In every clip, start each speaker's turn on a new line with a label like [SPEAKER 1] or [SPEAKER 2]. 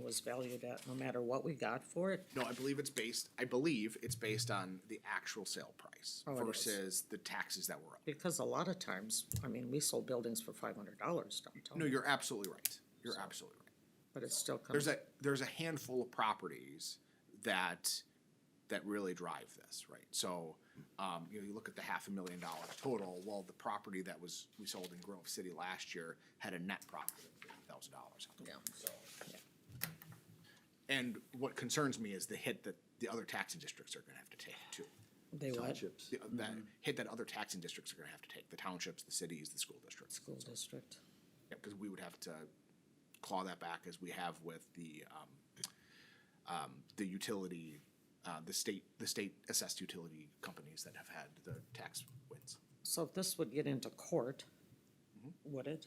[SPEAKER 1] was valued at, no matter what we got for it.
[SPEAKER 2] No, I believe it's based, I believe it's based on the actual sale price
[SPEAKER 1] Oh, it is.
[SPEAKER 2] versus the taxes that were up.
[SPEAKER 1] Because a lot of times, I mean, we sold buildings for five hundred dollars downtown.
[SPEAKER 2] No, you're absolutely right. You're absolutely right.
[SPEAKER 1] But it still
[SPEAKER 2] There's
[SPEAKER 1] comes,
[SPEAKER 2] a, there's a handful of properties that, that really drive this, right? So, um, you know, you look at the half a million dollar total, well, the property that was, we sold in Grove City last year had a net profit of thousand dollars.
[SPEAKER 1] yeah,
[SPEAKER 2] And what concerns me is the hit that the other taxing districts are gonna have to take too.
[SPEAKER 1] they what,
[SPEAKER 2] The- That hit that other taxing districts are gonna have to take, the townships, the cities, the school districts.
[SPEAKER 1] school district.
[SPEAKER 2] Yeah, because we would have to claw that back as we have with the, um, um, the utility, uh, the state, the state assessed utility companies that have had the tax wins.
[SPEAKER 1] So if this would get into court,
[SPEAKER 2] Mm-hmm.
[SPEAKER 1] would it?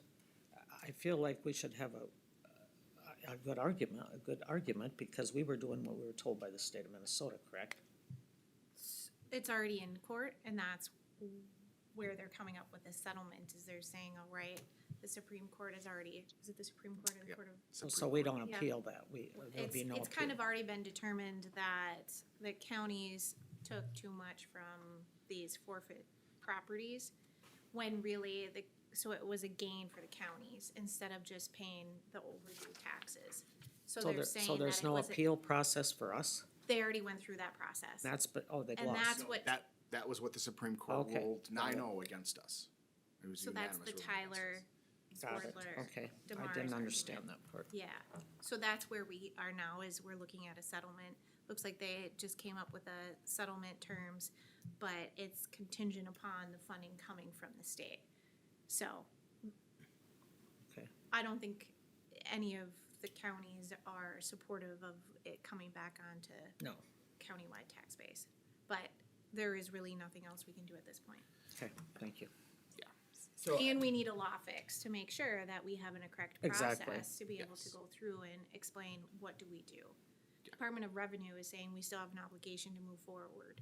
[SPEAKER 1] I feel like we should have a, a- a good argument, a good argument, because we were doing what we were told by the state of Minnesota, correct?
[SPEAKER 3] It's already in court and that's where they're coming up with this settlement is they're saying, all right, the Supreme Court is already, is it the Supreme Court or the
[SPEAKER 2] Yep.
[SPEAKER 3] Court of?
[SPEAKER 1] So- So
[SPEAKER 2] Supreme
[SPEAKER 1] we don't
[SPEAKER 3] Yeah.
[SPEAKER 1] appeal that, we, there'd
[SPEAKER 3] It's,
[SPEAKER 1] be no appeal.
[SPEAKER 3] it's kind of already been determined that the counties took too much from these forfeit properties when really the, so it was a gain for the counties instead of just paying the overdue taxes. So
[SPEAKER 1] So
[SPEAKER 3] they're
[SPEAKER 1] there,
[SPEAKER 3] saying
[SPEAKER 1] so
[SPEAKER 3] that
[SPEAKER 1] there's
[SPEAKER 3] it
[SPEAKER 1] no
[SPEAKER 3] wasn't,
[SPEAKER 1] appeal process for us?
[SPEAKER 3] they already went through that process.
[SPEAKER 1] That's, but, oh, they
[SPEAKER 3] And that's
[SPEAKER 1] lost.
[SPEAKER 2] No,
[SPEAKER 3] what-
[SPEAKER 2] That, that was what the Supreme Court
[SPEAKER 1] Okay.
[SPEAKER 2] ruled nine oh against us. It was
[SPEAKER 3] So
[SPEAKER 2] unanimous
[SPEAKER 3] that's the
[SPEAKER 2] ruling against
[SPEAKER 3] Tyler,
[SPEAKER 2] us.
[SPEAKER 1] Got it,
[SPEAKER 3] Swordler,
[SPEAKER 1] okay. I
[SPEAKER 3] Demar's
[SPEAKER 1] didn't
[SPEAKER 3] argument.
[SPEAKER 1] understand that part.
[SPEAKER 3] Yeah, so that's where we are now, is we're looking at a settlement. Looks like they just came up with a settlement terms, but it's contingent upon the funding coming from the state. So
[SPEAKER 1] Okay,
[SPEAKER 3] I don't think any of the counties are supportive of it coming back onto
[SPEAKER 1] no,
[SPEAKER 3] countywide tax base. But there is really nothing else we can do at this point.
[SPEAKER 1] okay, thank you.
[SPEAKER 2] uh,
[SPEAKER 4] So,
[SPEAKER 3] And we need a law fix to make sure that we have an correct
[SPEAKER 1] Exactly.
[SPEAKER 3] process to be able to go through and explain what do we do. Department of Revenue is saying we still have an obligation to move forward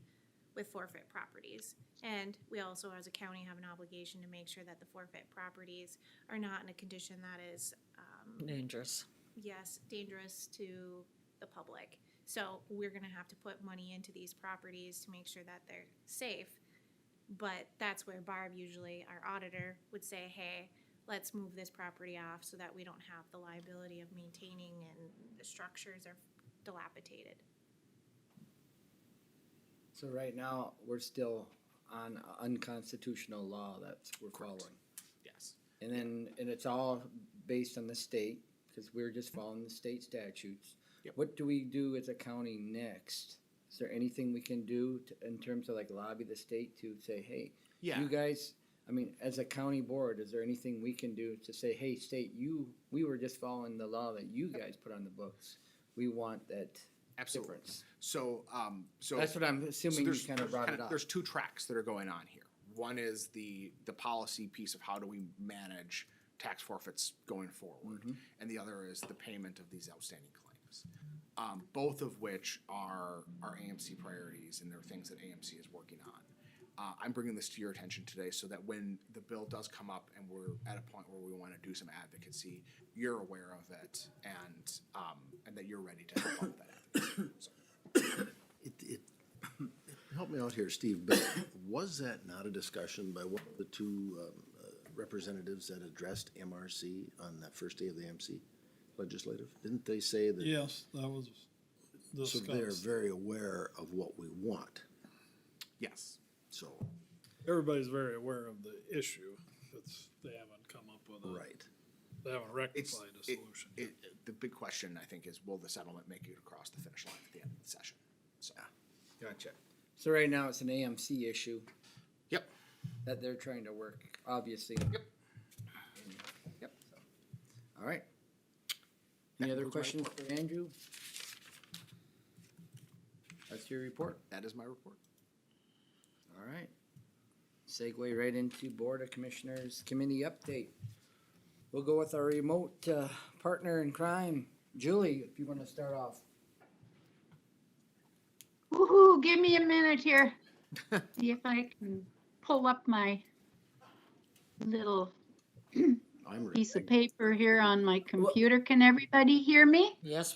[SPEAKER 3] with forfeit properties. And we also, as a county, have an obligation to make sure that the forfeit properties are not in a condition that is, um,
[SPEAKER 1] Dangerous.
[SPEAKER 3] yes, dangerous to the public. So we're gonna have to put money into these properties to make sure that they're safe. But that's where Barb usually, our auditor, would say, hey, let's move this property off so that we don't have the liability of maintaining and the structures are dilapidated.
[SPEAKER 4] so right now, we're still on unconstitutional law that's we're following.
[SPEAKER 2] Yes.
[SPEAKER 4] And then, and it's all based on the state, because we're just following the state statutes.
[SPEAKER 2] Yep.
[SPEAKER 4] What do we do as a county next? Is there anything we can do to, in terms of like lobby the state to say, hey,
[SPEAKER 2] Yeah.
[SPEAKER 4] you guys, I mean, as a county board, is there anything we can do to say, hey, state, you, we were just following the law that you guys put on the books? We want that
[SPEAKER 2] Absolutely.
[SPEAKER 4] difference.
[SPEAKER 2] So, um, so.
[SPEAKER 4] That's what I'm
[SPEAKER 2] So
[SPEAKER 4] assuming you
[SPEAKER 2] there's-
[SPEAKER 4] kind of
[SPEAKER 2] there's
[SPEAKER 4] brought it
[SPEAKER 2] kinda-
[SPEAKER 4] up.
[SPEAKER 2] There's two tracks that are going on here. One is the, the policy piece of how do we manage tax forfeits going
[SPEAKER 4] Mm-hmm.
[SPEAKER 2] forward? And the other is the payment of these outstanding claims. Um, both of which are, are AMC priorities and they're things that AMC is working on. Uh, I'm bringing this to your attention today so that when the bill does come up and we're at a point where we want to do some advocacy, you're aware of it and, um, and that you're ready to help out with that. advocacy. So-
[SPEAKER 5] It, it, help me out here, Steve, but was that not a discussion by one of the two um, uh, representatives that addressed MRC on that first day of the MC legislative? Didn't they say that,
[SPEAKER 6] Yes, that was
[SPEAKER 5] so they're
[SPEAKER 6] discussed.
[SPEAKER 5] very aware of what we want,
[SPEAKER 2] Yes.
[SPEAKER 5] so,
[SPEAKER 6] Everybody's very aware of the issue. It's, they haven't come up with a,
[SPEAKER 5] right.
[SPEAKER 6] they haven't
[SPEAKER 2] It's,
[SPEAKER 6] rectified a
[SPEAKER 2] it,
[SPEAKER 6] solution.
[SPEAKER 2] it, the big question, I think, is will the settlement make it across the finish line at the end of the session? So,
[SPEAKER 4] Gotcha. So right now, it's an AMC issue
[SPEAKER 2] yep,
[SPEAKER 4] that they're trying to work, obviously.
[SPEAKER 2] Yep. Yep.
[SPEAKER 4] All right. Any
[SPEAKER 2] That
[SPEAKER 4] other
[SPEAKER 2] concludes my
[SPEAKER 4] questions for Andrew? That's your report.
[SPEAKER 2] that is my report.
[SPEAKER 4] All right. Segue right into Board of Commissioners Committee update. We'll go with our remote uh, partner in crime, Julie, if you want to start off.
[SPEAKER 7] Woohoo, give me a minute here. See if I can pull up my little
[SPEAKER 5] I'm ready.
[SPEAKER 7] piece of paper here on my computer. Can everybody hear me?
[SPEAKER 1] Yes,